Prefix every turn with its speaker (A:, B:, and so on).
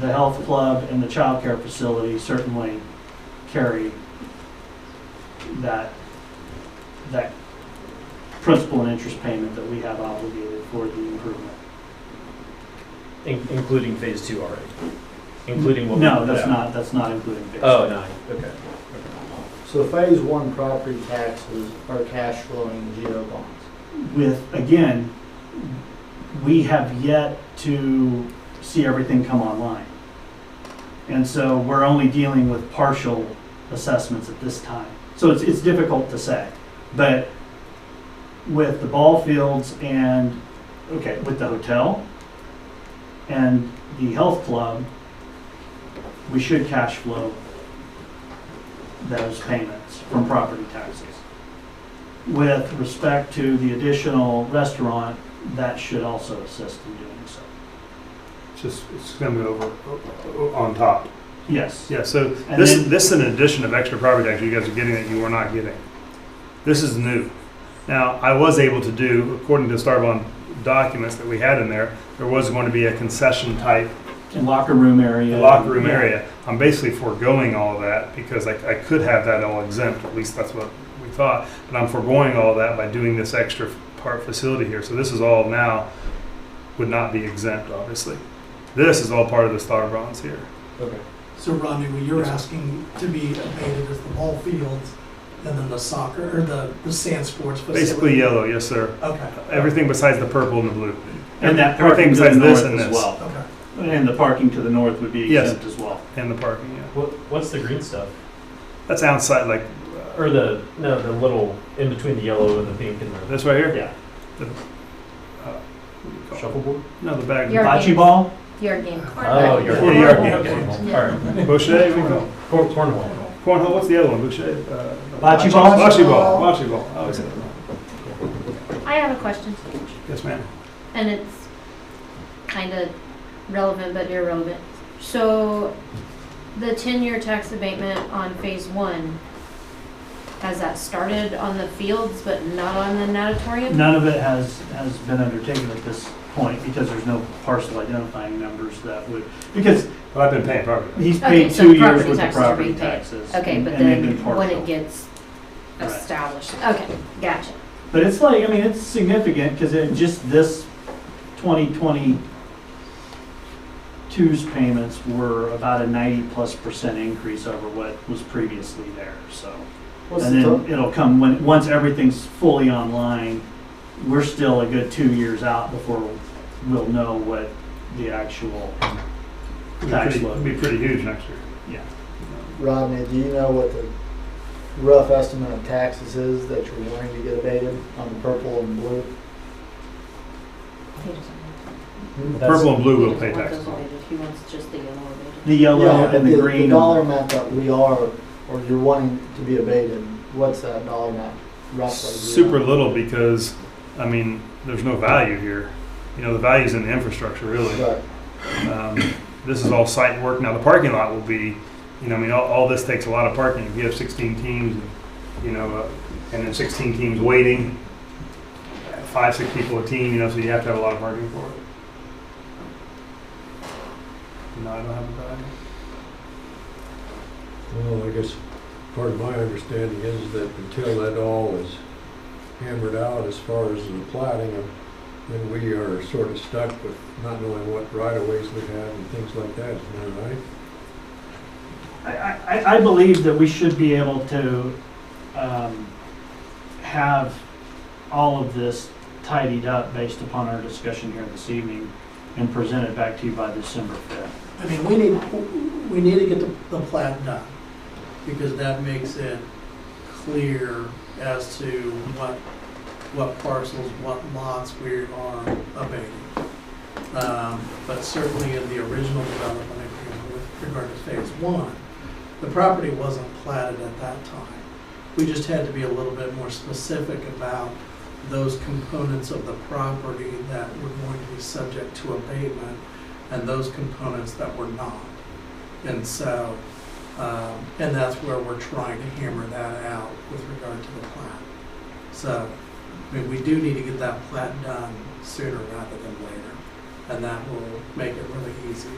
A: the health club and the childcare facility certainly carry that, that principal and interest payment that we have obligated for the improvement.
B: In- Including phase two already? Including what? we
A: No,
B: put
A: that's
B: out?
A: not, that's not including fixed.
B: Oh, nine, okay.
C: So phase one property taxes are cash flowing GO bonds.
A: With, again, we have yet to see everything come online. And so we're only dealing with partial assessments at this time. So it's, it's difficult to say. But with the ball fields and, okay, with the hotel and the health club, we should cash flow those payments from property taxes. With respect to the additional restaurant, that should also assist in doing so.
D: Just, it's coming over o- on top.
A: Yes.
D: Yeah, so
A: And
D: this,
A: then-
D: this is an addition of extra property tax you guys are getting that you were not getting. This is new. Now, I was able to do, according to Starbond documents that we had in there, there was going to be a concession type
A: And locker room area.
D: locker room
A: Yeah.
D: area. I'm basically foregoing all that because I, I could have that all exempt, at least that's what we thought. But I'm foregoing all that by doing this extra part facility here. So this is all now, would not be exempt, obviously. This is all part of the Starbonds here.
B: Okay.
E: So Rodney, what you're asking to be abated is the ball fields and then the soccer, or the, the sand sports facility?
D: Basically yellow, yes, sir.
E: Okay,
D: Everything besides the purple and the blue.
A: And that
D: Everything
A: parking to the
D: besides this
A: north
D: and
A: as
D: this.
A: well.
E: okay.
A: And the parking to the north would be
D: Yes.
A: exempt as well.
D: And the parking, yeah.
B: What, what's the green stuff?
D: That's outside, like,
B: Or the, no, the little, in between the yellow and the pink and the
D: this right here?
B: Yeah.
D: The- uh, what do you call it?
B: shuffleboard?
D: No, the bag.
F: Your-
A: Bocce ball?
F: Your game.
B: Oh, you're.
D: Yeah, you're- yeah,
F: okay.
B: All right.
D: Boucher, we call it?
B: Cor- Cornhole.
D: Cornhole, what's the other one? Boucher? uh,
A: Bocce ball?
D: Bocce ball, bocce ball. I always say that.
F: I have a question,
D: Yes, ma'am.
F: and it's kind of relevant but irrelevant. So, the ten-year tax abatement on phase one, has that started on the fields but not on the natatorium?
A: None of it has, has been undertaken at this point because there's no parcel identifying numbers that would, because
D: Well, I've been paying property.
A: he's
F: Okay,
A: paid
F: so
A: two years
F: property
A: with the
F: taxes are
A: property
F: being paid.
A: taxes.
F: Okay,
A: and-
F: but
A: and they've
F: then
A: been
F: when
A: partial.
F: it gets
A: Right.
F: established, okay, gotcha.
A: But it's like, I mean, it's significant because in just this 2022's payments were about a 90-plus percent increase over what was previously there, so.
C: What's
A: And
C: the total?
A: then it'll come, when, once everything's fully online, we're still a good two years out before we'll know what the actual
D: It'd be
A: tax
D: pretty- it'd
A: load.
D: Be pretty huge next year.
A: Yeah.
C: Rodney, do you know what the rough estimate of taxes is that you're wanting to get abated on the purple and blue?
D: Purple and blue will pay
F: He doesn't
D: taxes.
F: want those abated. He wants just the yellow abated.
A: The yellow and the green.
C: dollar amount that we are, or you're wanting to be abated, what's that dollar amount roughly?
D: Super little because, I mean, there's no value here. You know, the value's in the infrastructure, really.
C: Right.
D: Um, This is all site work. Now, the parking lot will be, you know, I mean, all, all this takes a lot of parking. If you have sixteen teams, you know, uh, and then sixteen teams waiting, uh, five, six people a team, you know, so you have to have a lot of parking for it. No, I don't have a value.
G: Well, I guess part of my understanding is that until that all is hammered out as far as the plating, uh, then we are sort of stuck with not knowing what right of ways we have and things like that, isn't that right?
A: I, I, I believe that we should be able to um, have all of this tidied up based upon our discussion here this evening and present it back to you by December 5th.
E: I mean, we need, we need to get the, the plat done, because that makes it clear as to what, what parcels, what lots we are abating. Um, But certainly in the original development agreement with regard to phase one, the property wasn't platted at that time. We just had to be a little bit more specific about those components of the property that were going to be subject to abatement and those components that were not. And so, um, and that's where we're trying to hammer that out with regard to the plat. So, I mean, we do need to get that plat done sooner rather than later, and that will make it really easy.